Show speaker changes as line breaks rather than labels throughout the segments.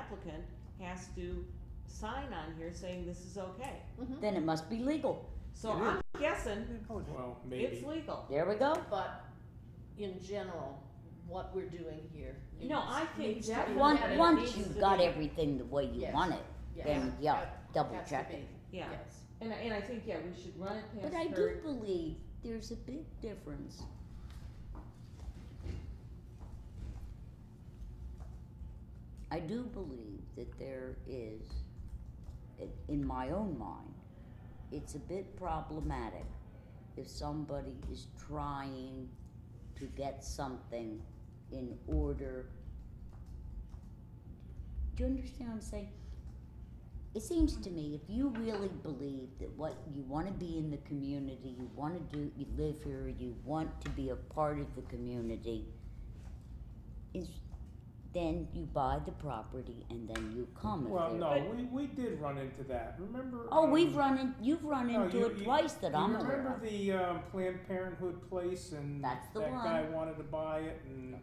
applicant has to sign on here saying this is okay.
Mhm.
Then it must be legal.
So
It
I'm guessing
Well,
it's
maybe.
legal.
There we go.
But in general, what we're doing here.
No,
needs-
I think
needs to
that
be
one-
vetted.
Once, once
needs to
you've got
be-
everything the way you
Yes.
want it,
Yes.
then yeah, double
Has to
check
be,
it.
Yeah.
yes.
And, I- and I think, yeah, we should run it
But I
past
do
her.
believe there's a big difference. I do believe that there is, in- in my own mind, it's a bit problematic if somebody is trying to get something in order. Do you understand what I'm saying? It seems to me if you really believe that what you want to be in the community, you want to do, you live here, you want to be a part of the community, is then you buy the property and then you come. if
Well,
there-
no,
But-
we, we did run into that, remember?
Oh, we've
um,
run in, you've run
no,
into
you-
it
you-
twice that
you
I'm aware
Remember
of.
the, um, Planned Parenthood place and that
That's the
guy
one.
wanted to buy it and,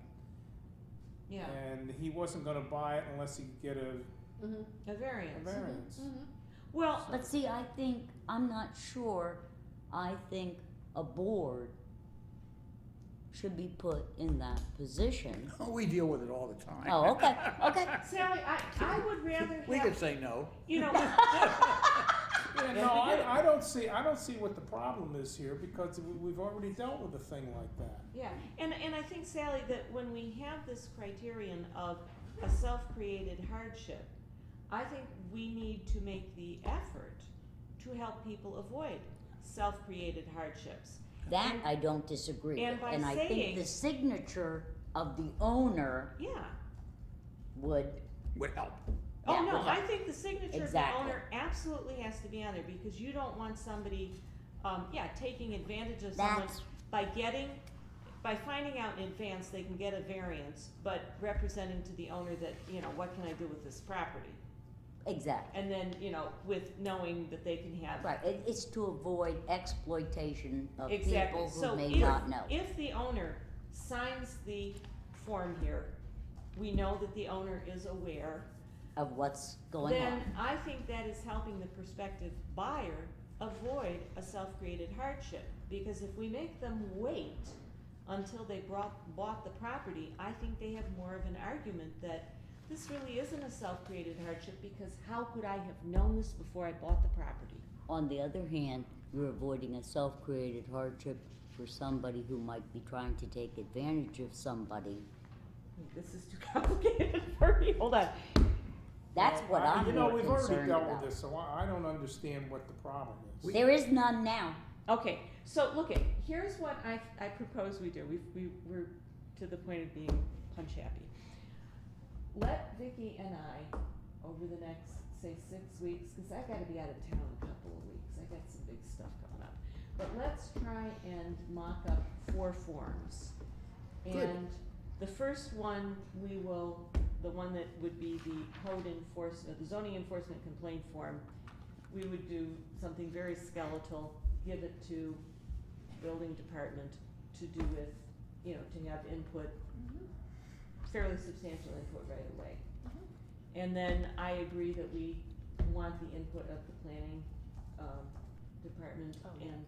Yeah,
and he wasn't gonna buy it unless he could get a-
Mhm,
a
a
variance.
variance.
Mm.
mhm.
Well,
But see, I think, I'm not sure, I think a board should be put in that position.
Oh, we deal with it all the time.
Oh, okay, okay.
Sally, I, I would rather
We could
have,
say no.
you know,
Yeah, no, I, I don't see, I don't see what the problem is here, because we, we've already dealt with a thing like that.
yeah. And, and I think Sally, that when we have this criterion of a self-created hardship, I think we need to make the effort to help people avoid self-created hardships.
That
And-
I don't disagree
and
with,
by
and I
saying-
think the signature of the owner
Yeah.
would,
Would help.
Oh,
Yeah,
no,
okay.
I think the signature of the
Exactly.
owner absolutely has to be on there, because you don't want somebody, um, yeah, taking advantage of someone
that's,
by getting, by finding out in advance, they can get a variance, but representing to the owner that, you know, what can I do with this property?
exactly,
And then, you know, with knowing that they can have.
right, it, it's to avoid exploitation of
Exactly.
people
So
who may
if-
not know.
If the owner signs the form here, we know that the owner is aware.
of what's going on.
Then I think that is helping the prospective buyer avoid a self-created hardship. Because if we make them wait until they brought, bought the property, I think they have more of an argument that this really isn't a self-created hardship because how could I have known this before I bought the property?
On the other hand, you're avoiding a self-created hardship for somebody who might be trying to take advantage of somebody.
This is too complicated for me, hold on.
That's what
Well, I-
I'm
You know,
more
we've already
concerned
dealt with
about.
this, so I, I don't understand what the problem is.
There is none now.
Okay, so look at, here's what I, I propose we do, we, we, we're to the point of being punch happy. Let Vicky and I, over the next, say, six weeks, cause I gotta be out of town a couple of weeks, I got some big stuff coming up. But let's try and mock up four forms.
Good.
And the first one, we will, the one that would be the code enforcement, the zoning enforcement complaint form, we would do something very skeletal, give it to building department to do with, you know, to have input,
Mm-hmm.
fairly substantial input right away.
Mm-hmm.
And then I agree that we want the input of the planning, um, department
Oh, yeah.
and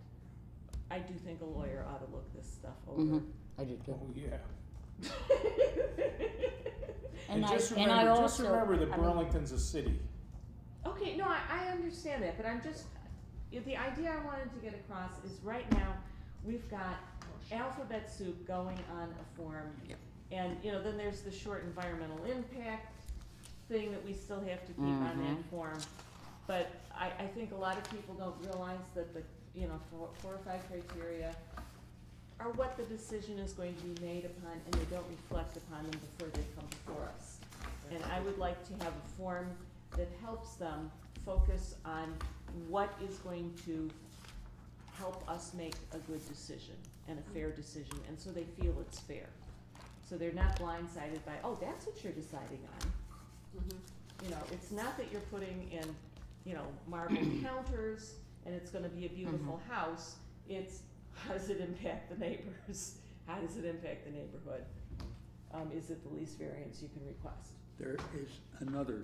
I do think a lawyer ought to look this stuff
hmm
over.
I did too.
Oh, yeah.
And I,
just
and I
remember- Just
also,
remember
I
that
mean-
Burlington's a city.
Okay, no, I, I understand that, but I'm just, if the idea I wanted to get across is right now, we've got alphabet soup going on a form.
Yep.
And, you know, then there's the short environmental impact thing that we still have to keep on
Mhm.
that form. But I, I think a lot of people don't realize that the, you know, four, four or five criteria are what the decision is going to be made upon, and they don't reflect upon them before they come before us. And I would like to have a form that helps them focus on what is going to help us make a good decision and a fair decision, and so they feel it's fair. So they're not blindsided by, oh, that's what you're deciding on.
Mm-hmm.
You know, it's not that you're putting in, you know, marble counters and it's gonna be a beautiful house. It's, how does it impact the neighbors? How does it impact the neighborhood? Um, is it the least variance you can request?
There is another